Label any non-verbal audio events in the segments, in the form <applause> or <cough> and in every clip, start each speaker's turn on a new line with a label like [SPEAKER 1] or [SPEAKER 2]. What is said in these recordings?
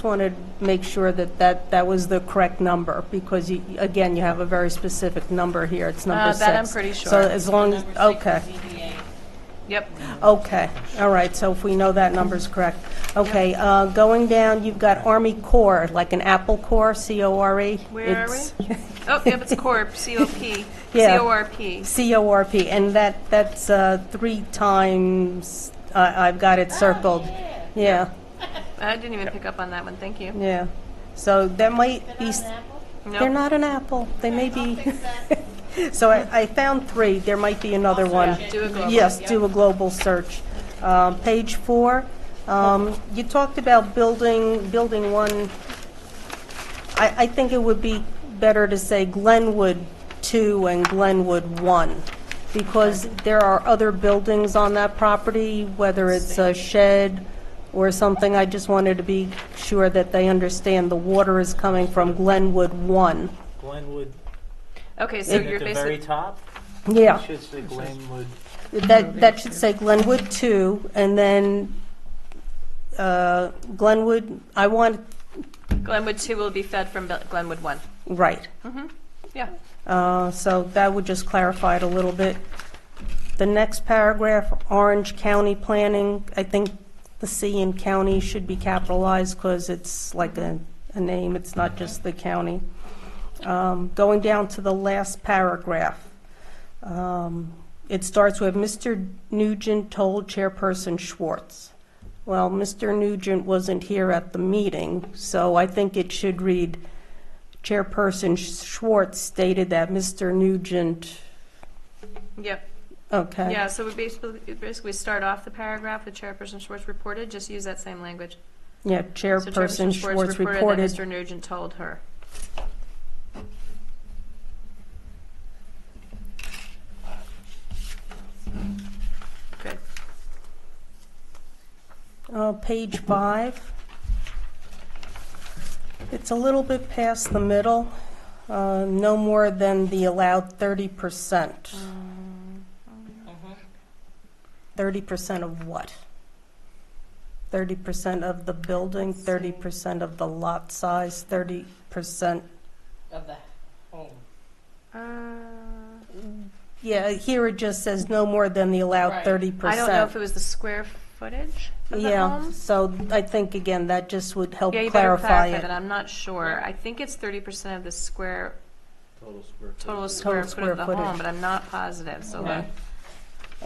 [SPEAKER 1] Just wanted to make sure that that, that was the correct number, because you, again, you have a very specific number here, it's number
[SPEAKER 2] Uh,
[SPEAKER 1] six.
[SPEAKER 2] that I'm pretty
[SPEAKER 1] So
[SPEAKER 2] sure.
[SPEAKER 1] as long, as okay,
[SPEAKER 2] Yep.
[SPEAKER 1] okay, all right, so if we know that number's correct. Okay, uh, going down, you've got Army Corps, like an Apple Corps, C-O-R-E.
[SPEAKER 2] Where are
[SPEAKER 1] E. It's- <laughs>
[SPEAKER 2] we? Oh, yep, it's CORP, C-O-P,
[SPEAKER 1] Yeah.
[SPEAKER 2] C-O-R-P.
[SPEAKER 1] C-O-R-P, and that, that's uh, three times, I- I've got
[SPEAKER 2] Ah,
[SPEAKER 1] it circled. Yeah,
[SPEAKER 2] I didn't even pick up on that one, thank you.
[SPEAKER 1] yeah. So that might be... s- They're
[SPEAKER 2] Nope.
[SPEAKER 1] not an apple. They may <laughs> be. So I I found three. There might be another one.
[SPEAKER 2] Oh, do a global,
[SPEAKER 1] Yes, do a global search. Um, Page four, um, you talked about building, building one. I, I think it would be better to say Glenwood two and Glenwood one, because there are other buildings on that property, whether it's a shed or something. I just wanted to be sure that they understand the water is coming from Glenwood one.
[SPEAKER 3] Glenwood,
[SPEAKER 2] Okay, so
[SPEAKER 3] at the
[SPEAKER 2] you're
[SPEAKER 3] very
[SPEAKER 2] basically,
[SPEAKER 3] top,
[SPEAKER 1] Yeah.
[SPEAKER 3] should say Glenwood.
[SPEAKER 1] That, that should say Glenwood 2, and then uh, Glenwood, I want,
[SPEAKER 2] Glenwood 2 will be fed from Bel- Glenwood 1.
[SPEAKER 1] right.
[SPEAKER 2] Yeah.
[SPEAKER 1] Uh, So that would just clarify it a little bit. The next paragraph, Orange County Planning, I think the C in county should be capitalized because it's like a, a name, it's not just the county. Um, Going down to the last paragraph, um, it starts with, "Mr. Nugent told Chairperson Schwartz." Well, Mr. Nugent wasn't here at the meeting, so I think it should read, Chairperson Schwartz stated that Mr. Nugent,
[SPEAKER 2] Yep.
[SPEAKER 1] okay.
[SPEAKER 2] Yeah, so we basically, basically start off the paragraph with Chairperson Schwartz reported, just use that same language.
[SPEAKER 1] Yeah,
[SPEAKER 2] So
[SPEAKER 1] Chairperson Schwartz
[SPEAKER 2] that
[SPEAKER 1] reported.
[SPEAKER 2] Mr. Nugent told her. Good.
[SPEAKER 1] Uh, Page five. It's a little bit past the middle, uh, no more than the allowed
[SPEAKER 2] Mm.
[SPEAKER 1] 30%. Um,
[SPEAKER 4] Mm-hmm.
[SPEAKER 1] 30% of what? 30% of the building, 30% of the lot size, 30%,
[SPEAKER 4] of the home.
[SPEAKER 2] Uh,
[SPEAKER 1] yeah, here it just says no more than the allowed
[SPEAKER 4] Right.
[SPEAKER 1] 30%.
[SPEAKER 2] I don't know if it was the square footage of the
[SPEAKER 1] Yeah,
[SPEAKER 2] homes.
[SPEAKER 1] so I think, again, that just would help
[SPEAKER 2] Yeah, you better
[SPEAKER 1] clarify
[SPEAKER 2] clarify that,
[SPEAKER 1] it.
[SPEAKER 2] I'm not sure. I think it's thirty percent of the square,
[SPEAKER 3] Total square.
[SPEAKER 2] total square foot
[SPEAKER 1] square
[SPEAKER 2] of the
[SPEAKER 1] footage.
[SPEAKER 2] home, but I'm not positive, so
[SPEAKER 4] Okay.
[SPEAKER 2] that- it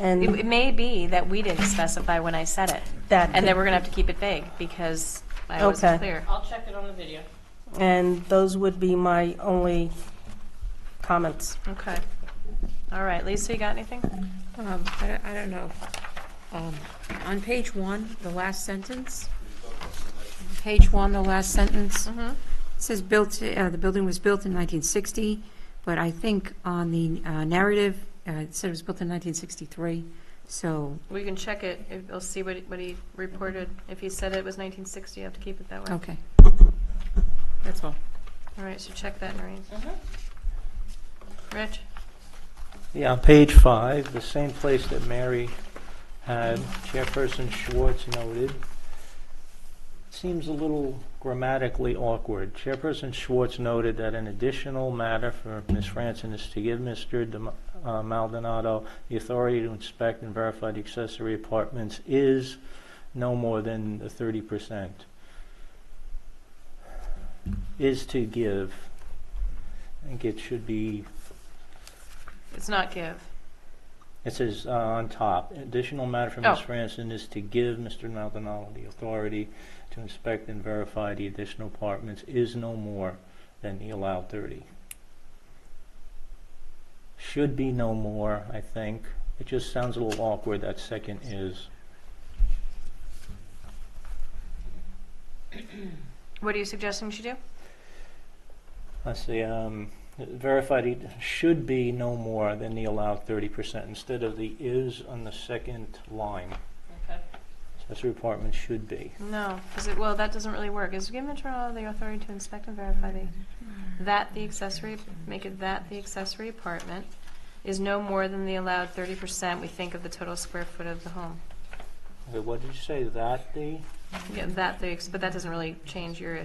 [SPEAKER 1] And
[SPEAKER 2] it may be that we didn't specify when I said it,
[SPEAKER 1] that,
[SPEAKER 2] and then
[SPEAKER 1] could-
[SPEAKER 2] we're gonna have to keep it vague, because I wasn't
[SPEAKER 1] Okay.
[SPEAKER 2] clear.
[SPEAKER 4] I'll check it on the video.
[SPEAKER 1] and those would be my only comments.
[SPEAKER 2] Okay. All right, Lisa, you got anything?
[SPEAKER 5] Um, I don't, I don't know. Um, on page one, the last sentence. Page one, the last sentence.
[SPEAKER 2] Mm-hmm.
[SPEAKER 5] It says built, uh, the building was built in nineteen sixty, but I think on the uh, narrative, uh, it said it was built in nineteen sixty-three. So,
[SPEAKER 2] We can check it, if- we'll see what, he- what he reported. If he said it was nineteen sixty, you have to keep it that way.
[SPEAKER 5] okay. That's all.
[SPEAKER 2] All right, so check that, Noreen.
[SPEAKER 4] Mm-hmm.
[SPEAKER 2] Rich?
[SPEAKER 3] Yeah, on page five, the same place that Mary had, Chairperson Schwartz noted. Seems a little grammatically awkward. Chairperson Schwartz noted that an additional matter for Ms. Franson is to give Mr. De- uh, Maldonado the authority to inspect and verify the accessory apartments is no more than the thirty percent. Is to give. I think it should be
[SPEAKER 2] It's not give.
[SPEAKER 3] it says uh, on top, additional matter for Ms.
[SPEAKER 2] Oh.
[SPEAKER 3] Franson is to give Mr. Maldonado the authority to inspect and verify the additional apartments is no more than the allowed 30. Should be no more, I think. It just sounds a little awkward, that second is.
[SPEAKER 2] What are you suggesting she do?
[SPEAKER 3] Let's see, um, verified it should be no more than the allowed 30% instead of the is on the second line.
[SPEAKER 4] Okay.
[SPEAKER 3] Accessory apartment should be.
[SPEAKER 2] No, because it, well, that doesn't really work. Is given Maldonado the authority to inspect and verify the, that the accessory, make it that the accessory apartment is no more than the allowed thirty percent we think of the total square foot of the home.
[SPEAKER 3] Okay, what did you say, that the?
[SPEAKER 2] Yeah, that the, ex- but that doesn't really change your issue.